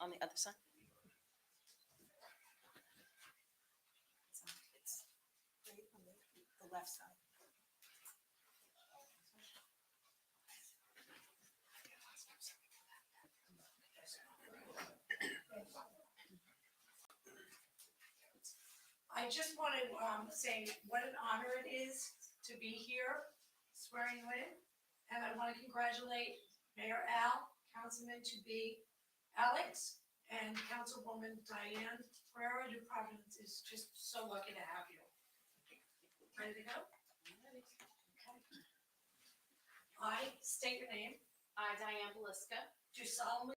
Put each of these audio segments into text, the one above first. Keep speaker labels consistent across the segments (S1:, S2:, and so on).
S1: on the other side?
S2: So It's right on the, the left side.
S3: I just want to um, say what an honor it is to be here swearing in. And I want to congratulate Mayor Al, Councilman to be Alex, and Councilwoman Diane Ferrera de Providence is just so lucky to have you. Ready to go? Okay. I state your name,
S4: I, Diane Belisca,
S3: do solemnly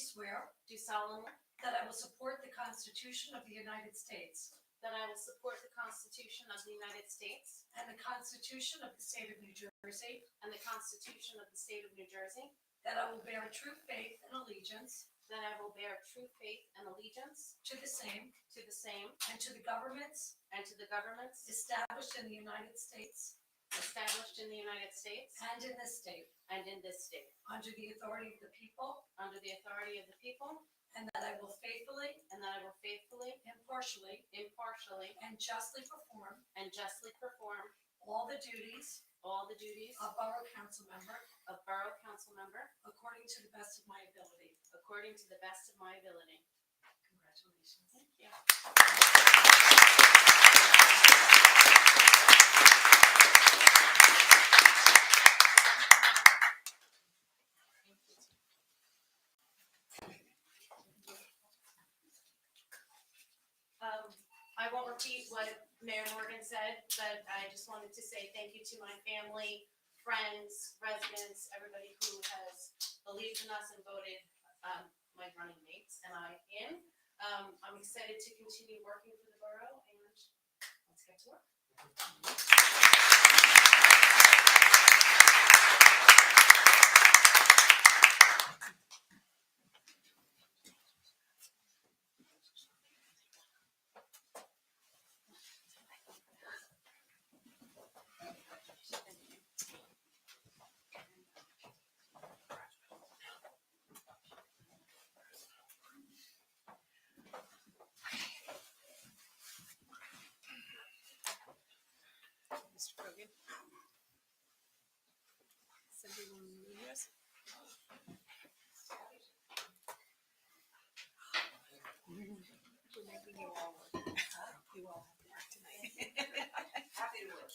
S3: swear
S4: do solemnly
S3: that I will support the Constitution of the United States
S4: that I will support the Constitution of the United States
S3: and the Constitution of the State of New Jersey,
S4: and the Constitution of the State of New Jersey,
S3: That I will bear true faith and allegiance
S4: that I will bear true faith and allegiance
S3: to the same
S4: to the same
S3: and to the governments
S4: and to the governments
S3: established in the United States
S4: established in the United States
S3: and in this state,
S4: and in this state,
S3: under the authority of the people,
S4: under the authority of the people,
S3: and that I will faithfully,
S4: and that I will faithfully,
S3: impartially,
S4: impartially,
S3: and justly perform
S4: and justly perform
S3: all the duties
S4: all the duties
S3: of Borough Council Member
S4: of Borough Council Member
S3: according to the best of my ability.
S4: according to the best of my ability.
S3: Congratulations.
S4: Thank you. Um, I won't repeat what Mayor Morgan said, but I just wanted to say thank you to my family, friends, residents, everybody who has believed in us and voted, um, my running mates and I in. Um, I'm excited to continue working for the borough and let's get to work.
S1: Mr. Kogan? Cindy, will you read yours? We're making you all work. You all have to work tonight.
S2: Happy to work.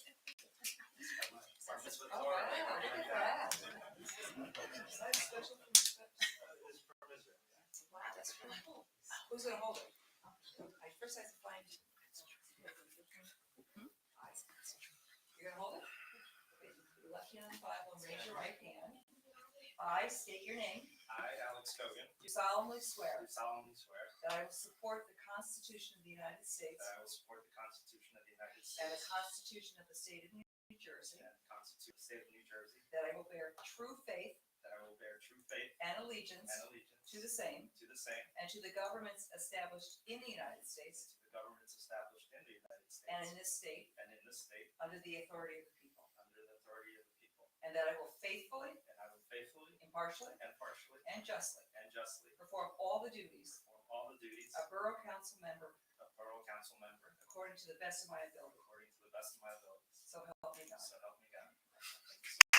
S5: Permits with
S2: All
S5: warrant.
S2: right, Oh, look at that.
S5: It's permits with-
S2: Wow, that's really cool. Who's gonna hold it? I first have to find. You're gonna hold it? Your Left hand on the Bible and raise your right hand. I state your name.
S5: I, Alex Cogan,
S2: Do solemnly swear
S5: do solemnly swear
S2: that I will support the Constitution of the United States
S5: that I will support the Constitution of the United
S2: and the
S5: States
S2: Constitution of the State of New Jersey,
S5: and the Constitution of the State of New Jersey,
S2: that I will bear true faith
S5: that I will bear true faith
S2: and allegiance
S5: and allegiance
S2: to the same
S5: to the same
S2: and to the governments established in the United
S5: and
S2: States
S5: to the governments established in the United
S2: and in
S5: States
S2: this state
S5: and in this state
S2: under the authority of the people.
S5: under the authority of the people.
S2: And that I will faithfully,
S5: And I will faithfully,
S2: impartially,
S5: impartially,
S2: and justly
S5: and justly
S2: perform all the duties
S5: perform all the duties
S2: of Borough Council member
S5: of Borough Council member
S2: according to the best of my ability.
S5: according to the best of my abilities.
S2: So help me God.
S5: So help me God.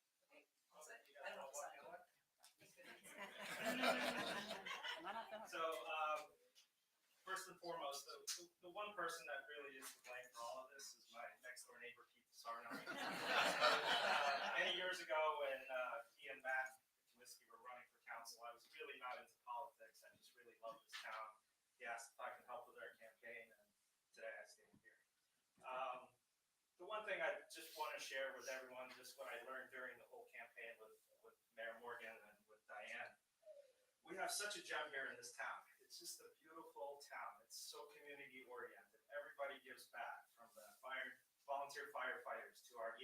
S2: I don't know.
S5: So, um, first and foremost, the, the- the one person that really is to blame for all of this is my next door neighbor, Keith Sarno. Uh, Many years ago, when, uh, he and Matt Whiskey were running for council, I was really not into politics, I just really loved this town. He asked if I could help with our campaign, and today I stand here. Um, the one thing I just want to share with everyone, just what I learned during the whole campaign with, with Mayor Morgan and with Diane, we have such a gem here in this town.